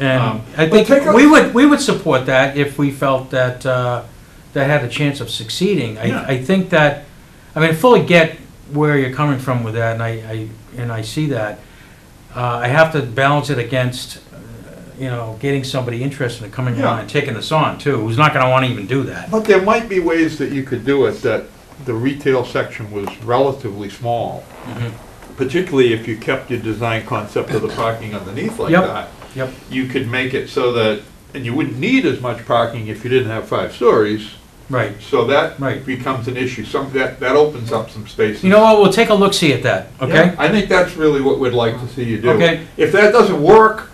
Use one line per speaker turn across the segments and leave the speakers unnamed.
And
Um,
I
but
think
take a-
we would, we would support that if we felt that, uh, that had a chance of succeeding.
Yeah.
I, I think that, I mean, I fully get where you're coming from with that, and I, I, and I see that. Uh, I have to balance it against, uh, you know, getting somebody interested in coming
Yeah.
on and taking this on too, who's not gonna wanna even do that.
But there might be ways that you could do it, that the retail section was relatively small, particularly if you kept your design concept of the parking underneath like
Yep.
that.
Yep,
You could make it so that, and you wouldn't need as much parking if you didn't have five stories,
right.
so that
Right.
becomes an issue. Some, that, that opens up some spaces.
You know what, we'll take a look, see at that, okay?
I think that's really what we'd like to see you do.
Okay.
If that doesn't work,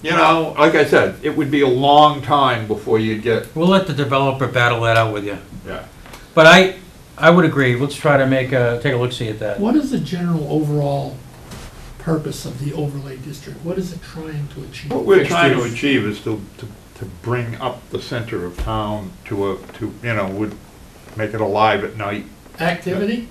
you know, like I said, it would be a long time before you get,
We'll let the developer battle that out with you.
yeah.
But I, I would agree, let's try to make a, take a look, see at that.
What is the general overall purpose of the overlay district? What is it trying to achieve?
What we're trying to achieve is to, to, to bring up the center of town to a, to, you know, would make it alive at night.
Activity?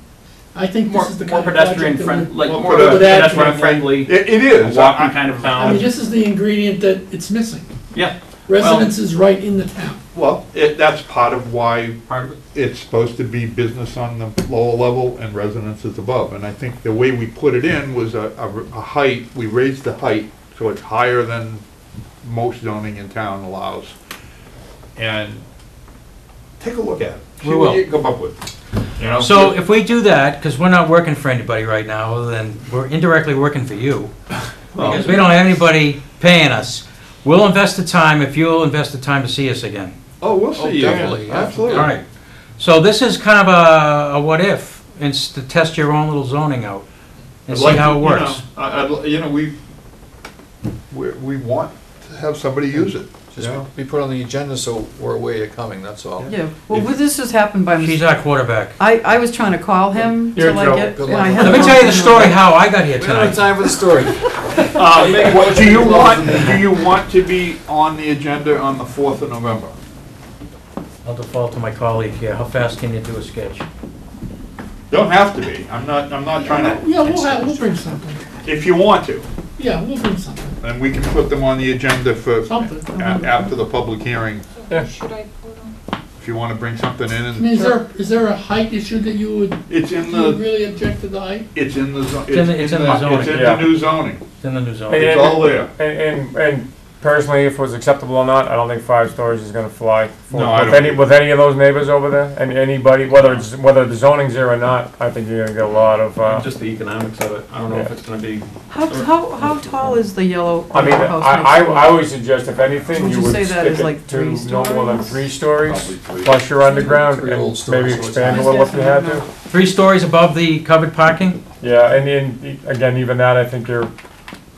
I think
More,
this is the
more
kind of project
pedestrian
that
friend,
would...
like
Well,
more
but-
pedestrian friendly,
It, it
a
is.
walking kind of
I mean,
town.
this is the ingredient that it's missing.
Yeah.
Residence is right in the town.
Well, it, that's part of why
Part of it.
it's supposed to be business on the lower level and residences above. And I think the way we put it in was a, a, a height, we raised the height, so it's higher than most zoning in town allows. And take a look at it. See
We
what
will.
you come up with. You know?
So if we do that, because we're not working for anybody right now, other than we're indirectly working for you, because we don't have anybody paying us, we'll invest the time if you'll invest the time to see us again.
Oh, we'll see you.
definitely, yeah.
Absolutely.
All right. So this is kind of a, a what if, and s- to test your own little zoning out and
I'd
see
like
how
to-
it
you
works.
know, I- I'd li- You know, we, we, we want to have somebody use it, you
Just
know?
be put on the agenda so we're aware you're coming, that's all.
Yeah, well, with- this just happened by
She's
mistake.
our quarterback.
I, I was trying to call him
You're in
till I
trouble.
get,
Good
and I
luck.
had.
Let me
the
tell you the
wrong
story
number.
how I got here
We don't have
tonight.
time for the story.
What, do you want, do you want to be on the agenda on the fourth of November?
I'll default to my colleague here. How fast can you do a sketch?
Don't have to be, I'm not, I'm not trying to,
Yeah, we'll have, we'll bring something.
if you want to,
Yeah, we'll bring something,
then we can put them on the agenda for, a-
something. I
after the public hearing. If you want to bring something in
mean,
and,
is there, is there a height issue that you would,
it's in
you would
the,
really object to the height?
it's in the, zo- it's
in
in
the-
the, it's
it's in the zoning.
in
Yeah.
the new zoning.
It's in the new zone.
And-
It's all there.
And, and, and personally, if it was acceptable or not, I don't think five stories is gonna fly. for-
No, I
With
don't
any,
either.
with any of those neighbors over there, and anybody, whether it's, whether the zoning's there or not, I think you're gonna get a lot of, uh,
Just the economics of it, I don't know if it's gonna be,
How, how, how tall is the yellow?
I mean, I,
house next
I,
door?
I always suggest if anything,
Would
you
you
would
say that
stick
is like
it to
three
no more than
stories?
three stories,
Probably three.
plus your underground,
Three old
and
stories,
maybe
so it's
expand a
nice.
little if you had to.
Three stories above the covered parking?
Yeah, and, and, again, even that, I think you're,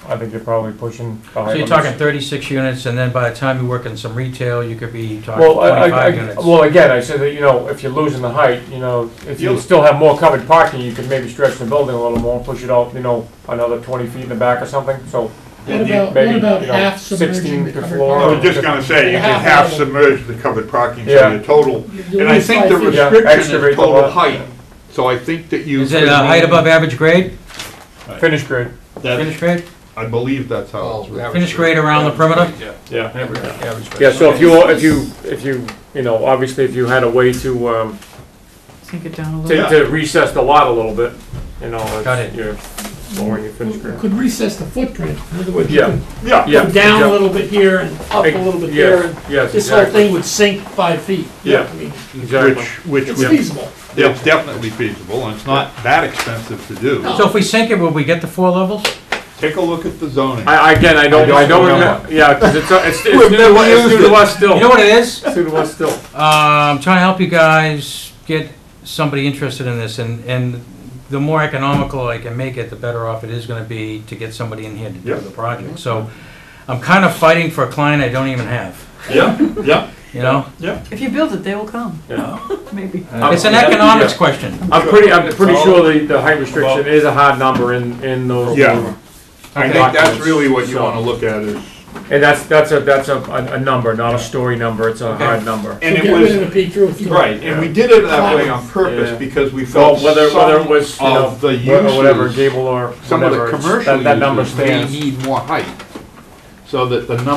I think you're probably pushing. the
So
height
you're
limits.
talking 36 units, and then by the time you work in some retail, you could be talking
Well, I,
25
I, I-
units.
well, again, I said that, you know, if you're losing the height, you know, if you
You'll-
still have more covered parking, you could maybe stretch the building a little more, push it out, you know, another twenty feet in the back or something, so.
What about, what
maybe,
about
you know,
half
16
submerging the
to
covered
floor.
I
parking?
was just gonna say, you can half submerge the covered parking, so
Oh. Yeah.
your total,
You
and I
lose
think
five
the
feet.
Yeah,
restriction
excavate
is
the
total
lot.
height, so I think that you.
Is it a height above average grade?
Finish grid,
That,
Finish grade?
I believe that's how
Oh,
it's written.
Finish grade around the perimeter?
yeah.
Average
Yeah, so
price.
if you, if you, if you, you know, obviously if you had a way to, um,
Sink it down a little.
to, to recess the lot a little bit, you know,
Got
it's,
it.
you're lowering your finish
You
grid.
Could recess the footprint, in other words, you
Yeah,
could
Yeah.
yeah.
go down
yeah.
a little bit here and up a little bit there, and
Yes, yes,
this whole
exactly.
thing would sink five feet.
Yeah.
I mean,
Exactly.
Which, which,
It's
would-
feasible.
it's definitely feasible, and it's not that expensive to do.
No.
So if we sink it, will we get the four levels?
Take a look at the zoning.
I, I- again, I don't,
don't
I don't
remember.
remember, yeah, because it's, it's, it's new
We've
to
never
us- it's new
used
to
it.
us still.
You know what it is?
It's new to us still.
Uh, I'm trying to help you guys get somebody interested in this, and, and the more economical I can make it, the better off it is gonna be to get somebody in here to do
Yeah.
the project. So I'm kind of fighting for a client I don't even have,
Yeah, yeah.
you know?
If you build it, they will come,
Yeah.
maybe.
It's an economics question.
I'm pretty, I'm pretty sure the, the height restriction is a hard number in, in those.
Yeah. I think that's really what you
So-
wanna look at is,
And that's, that's a, that's a, a a number, not a story number, it's a hard number.
So
and
get
it
rid of
was,
the P-through if you want.
right, and we did it that way on
Yeah.
purpose because we
Well,
felt
whether, whether it was,
some
you know,
of the
wh- or whatever,
uses,
gable or
some of
whatever,
the
it's-
commercial
that, that number
uses may
stands.
need more height. so that the number